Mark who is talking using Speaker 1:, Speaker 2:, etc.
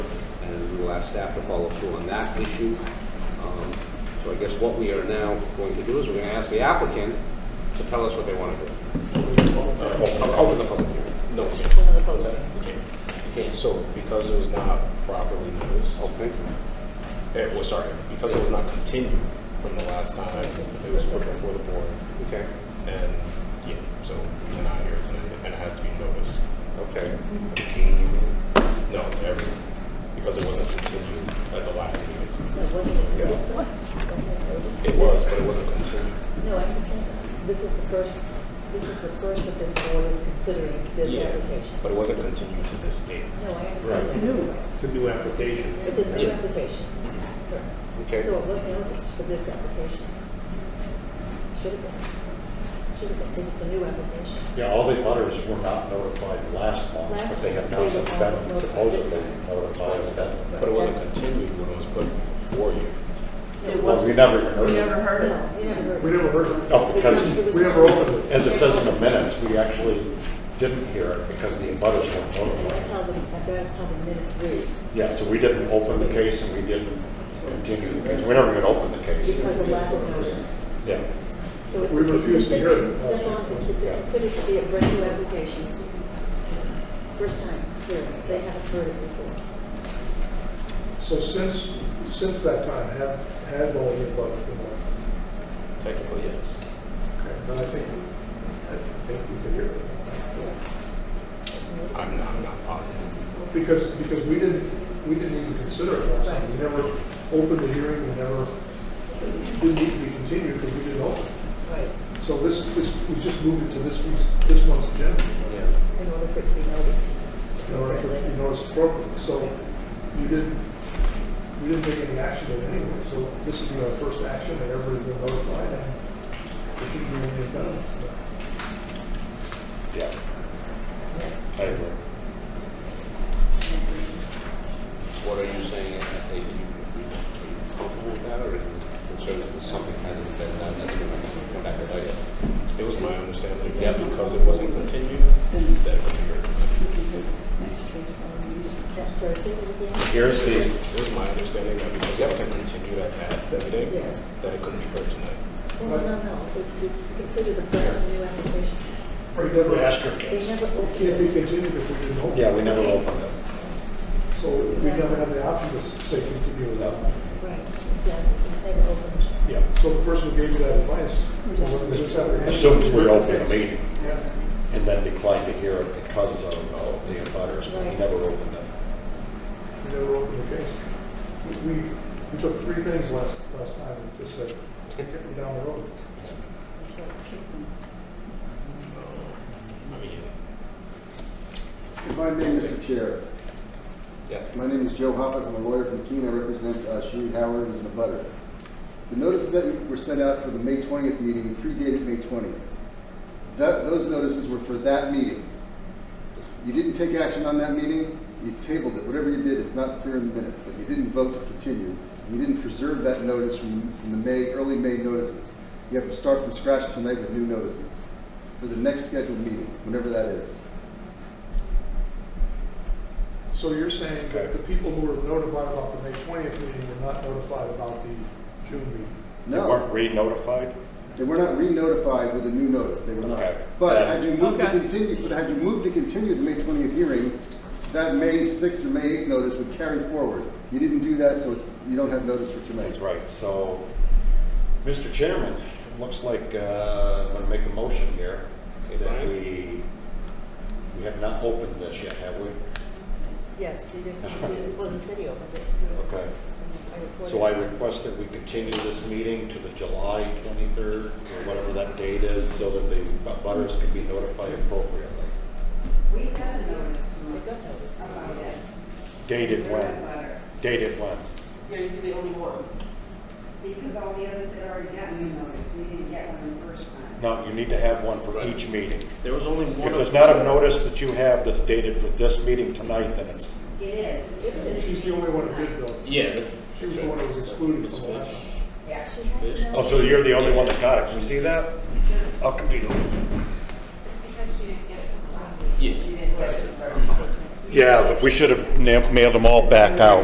Speaker 1: we'll ask staff to follow through on that issue. Um, So I guess what we are now going to do is we're going to ask the applicant to tell us what they want to do. I'll Open the public hearing.
Speaker 2: No. Okay. Okay, so because it was not properly noticed,
Speaker 1: Oh, thank you.
Speaker 2: eh, well, sorry, because it was not continued from the last time, it was put before the board,
Speaker 1: Okay,
Speaker 2: and, yeah, so we're not here tonight, and it has to be noticed.
Speaker 1: okay.
Speaker 2: No, every, because it wasn't continued at the last meeting. It was, but it wasn't continued.
Speaker 3: No, I understand. This is the first, this is the first that this board is considering this
Speaker 2: Yeah,
Speaker 3: application.
Speaker 2: But it wasn't continued to this date.
Speaker 3: No, I understand.
Speaker 4: Right.
Speaker 3: that. You're
Speaker 4: It's a new application.
Speaker 3: It's a new
Speaker 2: Yeah.
Speaker 3: application. Correct.
Speaker 1: Okay.
Speaker 3: So it was noticed for this application. Should have been. Should have been, because it's a new application.
Speaker 5: Yeah, all the others were not notified last month,
Speaker 3: Last
Speaker 5: but they have now
Speaker 3: month, they
Speaker 5: since
Speaker 3: were
Speaker 5: been
Speaker 3: not
Speaker 5: supposedly
Speaker 3: notified.
Speaker 5: notified, is that?
Speaker 2: But it wasn't continued when it was put before you.
Speaker 3: No.
Speaker 5: Well, we never even
Speaker 6: We
Speaker 5: heard
Speaker 6: never
Speaker 5: it.
Speaker 6: heard it.
Speaker 3: No, you never heard.
Speaker 4: We
Speaker 3: it.
Speaker 4: never heard of it.
Speaker 5: No,
Speaker 3: It's not- it
Speaker 5: because,
Speaker 3: was
Speaker 4: we
Speaker 3: not-
Speaker 4: never opened it.
Speaker 5: as it says in the minutes, we actually didn't hear it because the others weren't
Speaker 3: That's
Speaker 5: notified.
Speaker 3: how the, that's how the minutes read,
Speaker 5: Yeah, so we didn't open the case and we didn't continue the case. We never even opened the case.
Speaker 3: because of lack of notice.
Speaker 5: Yeah.
Speaker 3: So it's.
Speaker 4: We refuse to hear it.
Speaker 3: it's considered- It's considered to be a brand new application. First time here, they haven't heard it before.
Speaker 4: So since, since that time, have, have all the above been open?
Speaker 2: Technically, yes.
Speaker 4: Okay, Then I think, I think we can hear it.
Speaker 2: I'm not, I'm not positive.
Speaker 4: Because, because we didn't, we didn't even consider it last time. We never opened the hearing, we never, it didn't need to be continued because we didn't open. it.
Speaker 3: Right.
Speaker 4: So this, this, we just moved it to this week's, this month's agenda.
Speaker 2: Yeah.
Speaker 3: In order for it to be noticed.
Speaker 4: in order for it to be noticed appropriately. So you didn't, we didn't take any action in any way. So this would be our first action that everybody's been notified and it shouldn't be any impediment.
Speaker 5: Yeah,
Speaker 3: Yes.
Speaker 5: I agree.
Speaker 1: What are you saying, are you are you comfortable with that, or are you concerned that something hasn't been done, that's going to come back and bite you?
Speaker 2: It was my understanding that because it wasn't continued, that it could be heard.
Speaker 3: That- Sorry, say that again?
Speaker 5: Here's the,
Speaker 2: It was my understanding that because it wasn't continued at that meeting,
Speaker 3: Yes.
Speaker 2: that it couldn't be heard tonight.
Speaker 3: Oh, no, no, no, It- it's considered a brand new application.
Speaker 4: Or you never asked,
Speaker 3: They never
Speaker 4: can't be
Speaker 3: opened it.
Speaker 4: continued if we didn't open.
Speaker 5: yeah, we never opened it.
Speaker 4: So we never had the option to say continue without.
Speaker 3: Right, exactly, it's never opened.
Speaker 5: Yeah.
Speaker 4: So the person who gave you that advice, well, when this happened-
Speaker 5: Assumes we opened the meeting
Speaker 4: Yeah.
Speaker 5: and then declined to hear it because of uh, the butters, but we never opened it.
Speaker 4: We never opened the case. We- We, we took three things last, last time and just said, kick it down the road.
Speaker 3: That's right.
Speaker 2: Uh, I mean,
Speaker 7: If I may, Mr. Chair,
Speaker 1: Yes.
Speaker 7: my name is Joe Hoppett, I'm a lawyer from Keene, I represent uh, Sheree Howard and the butter. The notices that were sent out for the May 20th meeting predated May 20th. That, those notices were for that meeting. You didn't take action on that meeting, you tabled it, whatever you did, it's not clear in the minutes, but you didn't vote to continue. You didn't preserve that notice from, from the May, early May notices. You have to start from scratch tonight with new notices for the next scheduled meeting, whenever that is.
Speaker 4: So you're saying that the people who were notified about the May 20th meeting were not notified about the June meeting?
Speaker 5: They
Speaker 7: No.
Speaker 5: weren't re-notified?
Speaker 7: They were not re-notified with a new notice, they were not.
Speaker 5: Okay.
Speaker 7: But had you moved to
Speaker 6: Okay.
Speaker 7: continue, but had you moved to continue the May 20th hearing, that May 6th or May 8th notice would carry forward. You didn't do that, so it's, you don't have notice for tonight.
Speaker 5: That's right. So, Mr. Chairman, it looks like uh, I'm going to make a motion here
Speaker 1: Okay,
Speaker 5: that
Speaker 1: Brian.
Speaker 5: we, we have not opened this yet, have we?
Speaker 3: Yes, we didn't, we- well, the city opened it.
Speaker 5: Okay. So I request that we continue this meeting to the July 23rd, or whatever that date is, so that the bu- butters can be notified appropriately.
Speaker 8: We got a notice
Speaker 3: They got notice.
Speaker 8: about it.
Speaker 5: Dated
Speaker 8: You're not
Speaker 5: when?
Speaker 8: butter.
Speaker 5: Dated when?
Speaker 8: You're you're the only one. Because all the others had already gotten a notice, we didn't get one the first time.
Speaker 5: No, you need to have one for each meeting.
Speaker 2: there was only one.
Speaker 5: If there's not a notice that you have that's dated for this meeting tonight, then it's
Speaker 8: It is. It's for this
Speaker 4: She's the only one who
Speaker 8: meeting
Speaker 4: did though.
Speaker 2: Yeah.
Speaker 4: She was the one who was excluded
Speaker 2: It's
Speaker 4: from the last.
Speaker 2: fish.
Speaker 8: tonight. Yeah, she has to know.
Speaker 5: Oh, so you're the only one that got it, you see that? How come you don't?
Speaker 8: Because she didn't get it the last
Speaker 2: Yeah.
Speaker 8: She didn't get it the first time.
Speaker 5: Yeah, but we should have na- mailed them all back out.